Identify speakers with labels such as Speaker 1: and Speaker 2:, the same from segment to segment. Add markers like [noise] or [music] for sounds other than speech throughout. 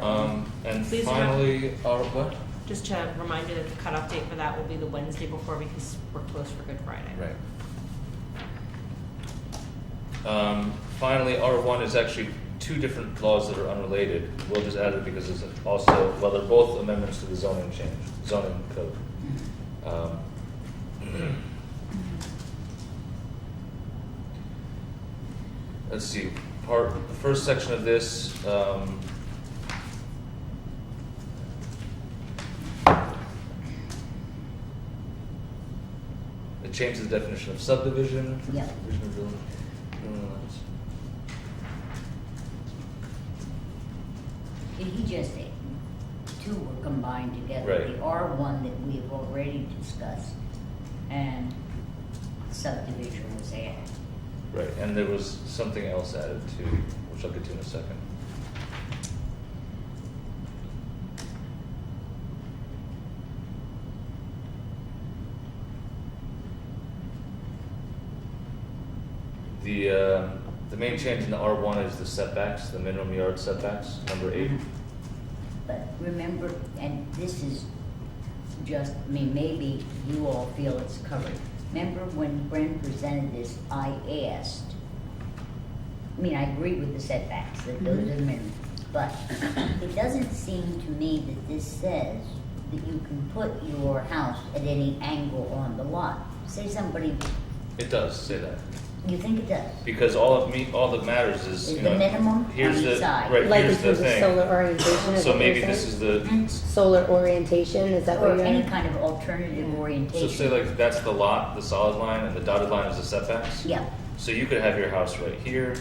Speaker 1: Um, And
Speaker 2: Please don't-
Speaker 1: finally, our, what?
Speaker 2: Just to remind you that the cutoff date for that will be the Wednesday before because we're closed for Good Friday.
Speaker 1: Right. Um, finally, R one is actually two different laws that are unrelated. We'll just add it because it's also, well, they're both amendments to the zoning change, zoning code. Um, Let's see, part, the first section of this, um, It changes the definition of subdivision.
Speaker 3: Yeah.
Speaker 1: Subdivision of building- building lots.
Speaker 3: Did he just say two were combined together?
Speaker 1: Right.
Speaker 3: The R one that we've already discussed and subdivision was added.
Speaker 1: Right, and there was something else added too, which I'll get to in a second. The, uh, the main change in the R one is the setbacks, the minimum yard setbacks, number eight.
Speaker 3: But remember, and this is just, I mean, maybe you all feel it's covered. Remember when Bren presented this, I asked, I mean, I agree with the setbacks, that those are minimum. But it doesn't seem to me that this says that you can put your house at any angle on the lot. Say somebody,
Speaker 1: It does say that,
Speaker 3: you think it does?
Speaker 1: because all of me, all that matters is,
Speaker 3: Is
Speaker 1: you
Speaker 3: the
Speaker 1: know,
Speaker 3: minimum
Speaker 1: here's
Speaker 3: on each
Speaker 1: the,
Speaker 3: side.
Speaker 1: right,
Speaker 4: Like in
Speaker 1: here's the
Speaker 4: terms of solar
Speaker 1: thing.
Speaker 4: orientation? is
Speaker 1: So
Speaker 4: what you're
Speaker 1: maybe this
Speaker 4: saying?
Speaker 1: is the,
Speaker 3: Hmm?
Speaker 4: Solar orientation, is that what
Speaker 3: Or
Speaker 4: you're?
Speaker 3: any kind of alternative
Speaker 1: So
Speaker 3: orientation?
Speaker 1: say like that's the lot, the solid line, and the dotted line is the setbacks.
Speaker 3: Yeah,
Speaker 1: So you could have your house right here,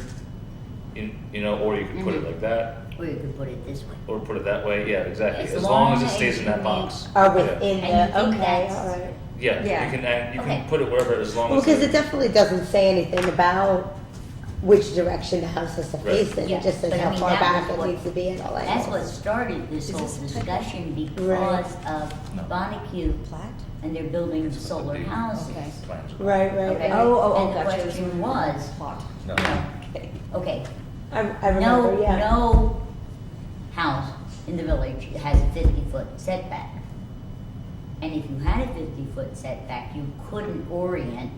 Speaker 1: you, you know, or you could put it
Speaker 3: Mhm.
Speaker 1: like that,
Speaker 3: or you could put it this way.
Speaker 1: or put it that way. Yeah, exactly.
Speaker 3: As
Speaker 1: As, long as
Speaker 3: long
Speaker 1: it stays
Speaker 3: as
Speaker 1: in
Speaker 3: you
Speaker 1: that
Speaker 3: meet-
Speaker 1: box.
Speaker 4: Are
Speaker 1: yeah.
Speaker 3: And you
Speaker 4: within the,
Speaker 3: think
Speaker 4: okay,
Speaker 3: that's-
Speaker 4: all right.
Speaker 1: Yeah,
Speaker 3: Yeah.
Speaker 1: you can add, you
Speaker 3: Okay.
Speaker 1: can put it wherever as long
Speaker 4: Well,
Speaker 1: as. the-
Speaker 4: because it definitely doesn't say anything about which direction the house has to
Speaker 1: Right.
Speaker 4: face in,
Speaker 3: Yeah,
Speaker 4: it just says
Speaker 3: but I
Speaker 4: how
Speaker 3: mean,
Speaker 4: far
Speaker 3: that
Speaker 4: back
Speaker 3: was
Speaker 4: it
Speaker 3: what-
Speaker 4: needs to be and all that.
Speaker 3: That's what started this
Speaker 5: Is
Speaker 3: whole
Speaker 5: this-
Speaker 3: discussion
Speaker 4: Right.
Speaker 3: because of
Speaker 1: No.
Speaker 3: Bonnecue
Speaker 5: Plat?
Speaker 3: and they're building
Speaker 1: It's
Speaker 3: solar
Speaker 1: the-
Speaker 3: houses.
Speaker 5: Okay.
Speaker 1: Plans.
Speaker 4: Right,
Speaker 3: Okay.
Speaker 4: right, right.
Speaker 5: Oh, oh, oh,
Speaker 3: And the
Speaker 5: gotcha. It
Speaker 3: question
Speaker 5: in the
Speaker 3: was-
Speaker 5: Plot.
Speaker 1: No.
Speaker 5: Okay.
Speaker 3: Okay,
Speaker 4: I, I
Speaker 3: no,
Speaker 4: remember, yeah.
Speaker 3: no house in the village has a fifty-foot setback. And if you had a fifty-foot setback, you couldn't orient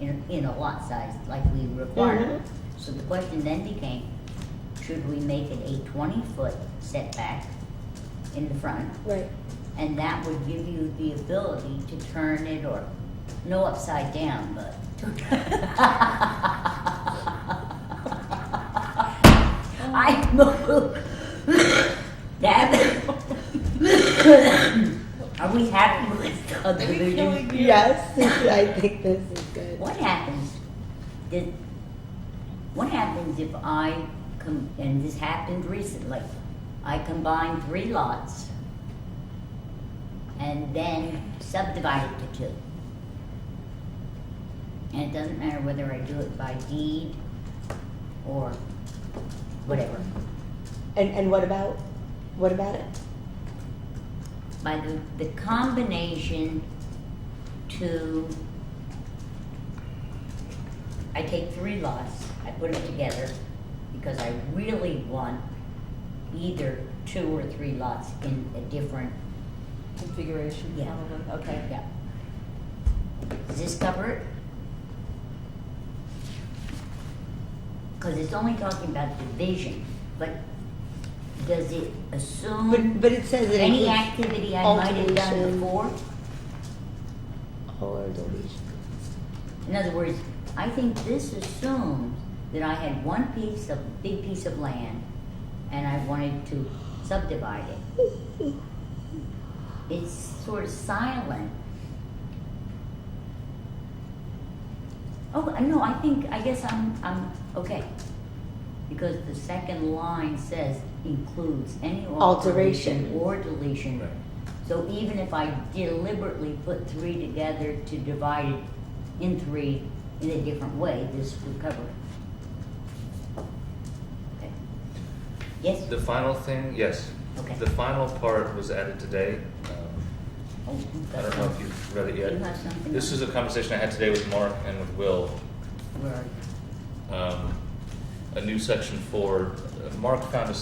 Speaker 3: in, in a lot size like we require.
Speaker 4: Mhm.
Speaker 3: So the question then became, should we make it a twenty-foot setback in the front?
Speaker 4: Right,
Speaker 3: And that would give you the ability to turn it or, no upside down, but. [laughs] I move. That. [laughs] Are we happy with subdivision?
Speaker 4: yes,
Speaker 5: [laughs]
Speaker 4: [laughs] I think this is good.
Speaker 3: What happens, did, what happens if I com, and this happened recently, I combine three lots and then subdivide it to two? And it doesn't matter whether I do it by deed or whatever,
Speaker 4: And, and what about, what about it?
Speaker 3: by the, the combination to, I take three lots, I put them together, because I really want either two or three lots in a different,
Speaker 5: Configuration,
Speaker 3: Yeah.
Speaker 5: probably.
Speaker 2: Um,
Speaker 5: Okay.
Speaker 3: yeah. Does this cover it? Cause it's only talking about division, but does it assume?
Speaker 4: But, but it says it
Speaker 3: Any
Speaker 4: includes
Speaker 3: activity I might have done
Speaker 4: alteration.
Speaker 3: before?
Speaker 4: or deletion.
Speaker 3: In other words, I think this assumes that I had one piece of, big piece of land and I wanted to subdivide it. It's sort of silent. Oh, I know, I think, I guess I'm, I'm, okay. Because the second line says includes any alteration
Speaker 4: Alteration.
Speaker 3: or deletion.
Speaker 1: Right.
Speaker 3: So even if I deliberately put three together to divide it in three in a different way, this would cover it. Okay. Yes?
Speaker 1: The final thing, yes.
Speaker 3: Okay.
Speaker 1: The final part was added today. Um,
Speaker 3: Oh, you've
Speaker 1: I
Speaker 3: got
Speaker 1: don't know if
Speaker 3: some-
Speaker 1: you've read it
Speaker 3: You
Speaker 1: yet.
Speaker 3: have something?
Speaker 1: This is a conversation I had today with Mark and with Will.
Speaker 3: Where are you?
Speaker 1: um, a new section for, Mark found a